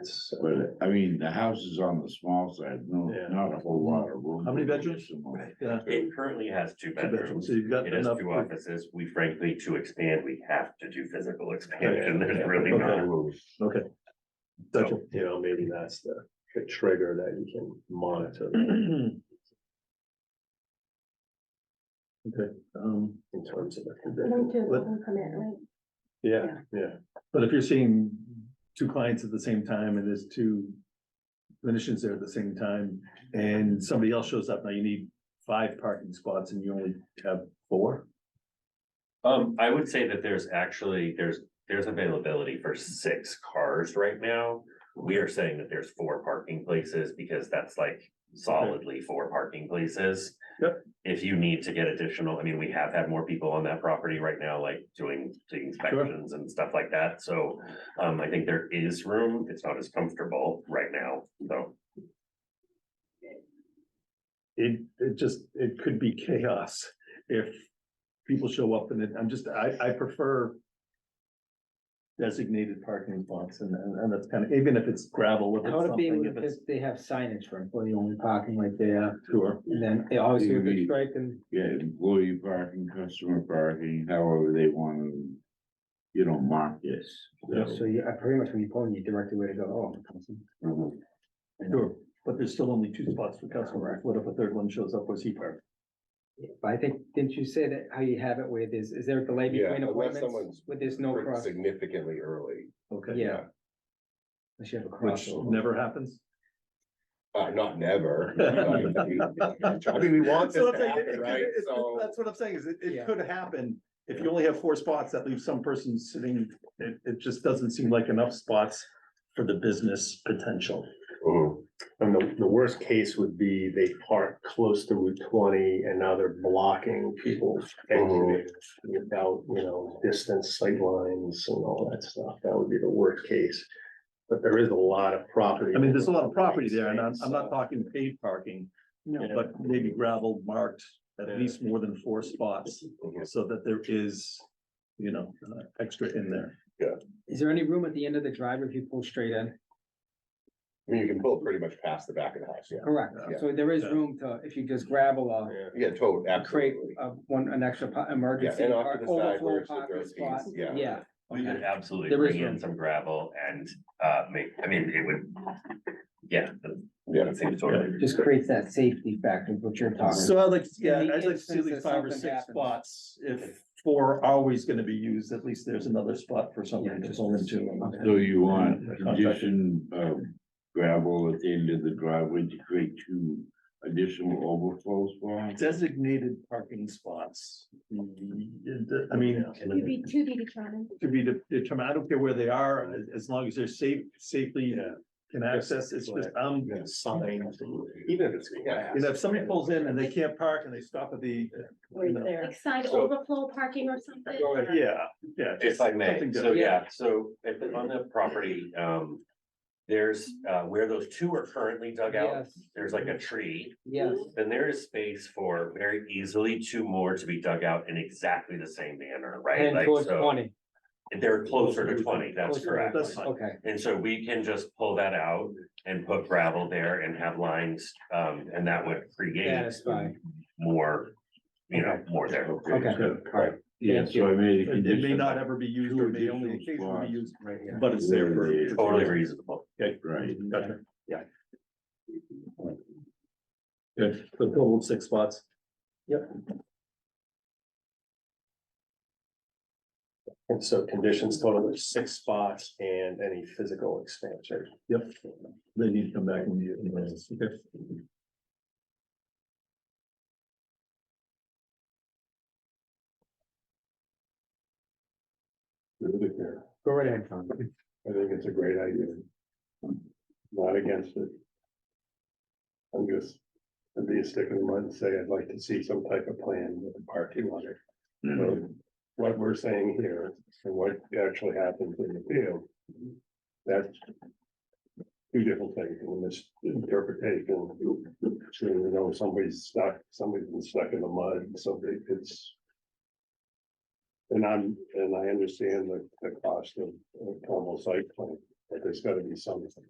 it's, But I mean, the house is on the small side, no, Yeah. not a whole lot of room. How many bedrooms? Small. yeah, It currently has two two bedrooms, bedrooms. so you've got It has enough. two offices. We frankly, to expand, we have to do physical expansion. Oh, yeah, There's really okay. not. Okay. Gotcha. You know, maybe that's the the trigger that you can monitor Okay, um, in terms of the Don't condition. do What- one permit, right? Yeah, Yeah. yeah. but if you're seeing two clients at the same time and there's two clinicians there at the same time, and somebody else shows up, now you need five parking spots and you only have four? Um, I would say that there's actually, there's, there's availability for six cars right now. We are saying that there's four parking places because that's like solidly four parking places. Yep. If you need to get additional, I mean, we have had more people on that property right now, like doing doing inspections and stuff like that. So um, I think there is room. It's not as comfortable right now, so. It, it just, it could be chaos if people show up and it, I'm just, I, I prefer designated parking spots and, and and that's kind of, even if it's gravel, if How it's would it be something, with- if it's. if they have signage for employee only parking like they are, Sure. and then they always do Mhm. a strike and Yeah, employee parking, customer parking, however they want to, you know, mark this. so you, I pretty much when you pull in, you direct the way to go, oh. awesome. You know, Sure, but there's still only two spots for customers. What if a third one shows up, where's he parked? But I think, didn't you say that how you have it where there's, is there a delay Yeah, between unless appointments someone's where there's no pretty cross? Significantly early, Okay. Yeah. Unless you have a Which crossover. never happens. uh, not never. but- I mean, we want So this that's to like, it- happen, it- right? it- So. That's what I'm saying, is it, Yeah. it could happen. If you only have four spots, that leaves some person sitting, it, it just doesn't seem like enough spots for the business potential. Mhm. And the, the worst case would be they park close to Route twenty and now they're blocking people's Mm-hmm. exiting without, you know, distance sightlines and all that stuff. That would be the worst case. But there is a lot of property. I mean, there's a lot of property there, and I'm, I'm not talking paid parking, but maybe gravel marked at Yeah. least more than four spots, Mhm. so that there is, you know, uh, extra in there. Is there any room at the end of the driveway if you pull straight in? I mean, you can pull pretty much past the back of the house, yeah. Correct, Yeah. so there is Yeah. room to, if you just gravel a. Yeah. Yeah, totally, create absolutely. uh one, an extra po- emergency and off or to the side where overflow it's the parking third spot, piece, yeah. yeah. We could Okay. absolutely There is bring in room. some gravel and uh make, I mean, it would. Yeah. that- Yeah. that seems totally Just creates that safety factor, what you're talking So I'd like, yeah, the I'd like to see at instance least that five or something six happens. spots, if four are always gonna be used, at least there's another spot for somebody Yeah, to just- pull into. Okay. So you want Contractor. condition of gravel at the end of the driveway to create two additional overflow spots? Designated parking spots. Mm, I mean, To be, to be determined. to be de- determined, I don't care where they are, as, as long as they're safe, safely Yeah. can access, it's just, um, Yeah, signs, Even if it's. you know, if somebody pulls in and they can't park and they stop at the, Right No. there. Like sign So- overflow parking or something. Go ahead. yeah, yeah. If I may, something so different. yeah, so if it- on the property, um, there's uh where those two are currently dug out, Yes, there's like a tree. yes, Then there is space for very easily two more to be dug out in exactly the same manner, right? and Like, towards so twenty, they're closer to twenty, Closer that's to correct. That's fine. okay, And so we can just pull that out and put gravel there and have lines, um, and that would create satisfied, more, you know, more there. okay, good. alright, Yeah, Thank so I made a It it may condition, not ever be used, or may only Two additional occasionally be spots. used, right here. but it's there for. Totally Totally reasonable. right? Gotcha. Yeah. Good, the total of six spots. And so conditions total of six spots and any physical expansion. Yep. They need to come back and do anyways. Okay. Go right ahead, Tom. I think it's a great idea. Not against it. I'm just, I'd be a stick in the mud and say I'd like to see some type of plan with the parking lot. So What we're saying here and what actually happens in the field. That's. Two different things in this interpretation. So, you know, somebody's stuck, somebody's been stuck in the mud, and somebody, it's. And I'm, and I understand the, the cost of, of normal site plan, but there's gotta be something.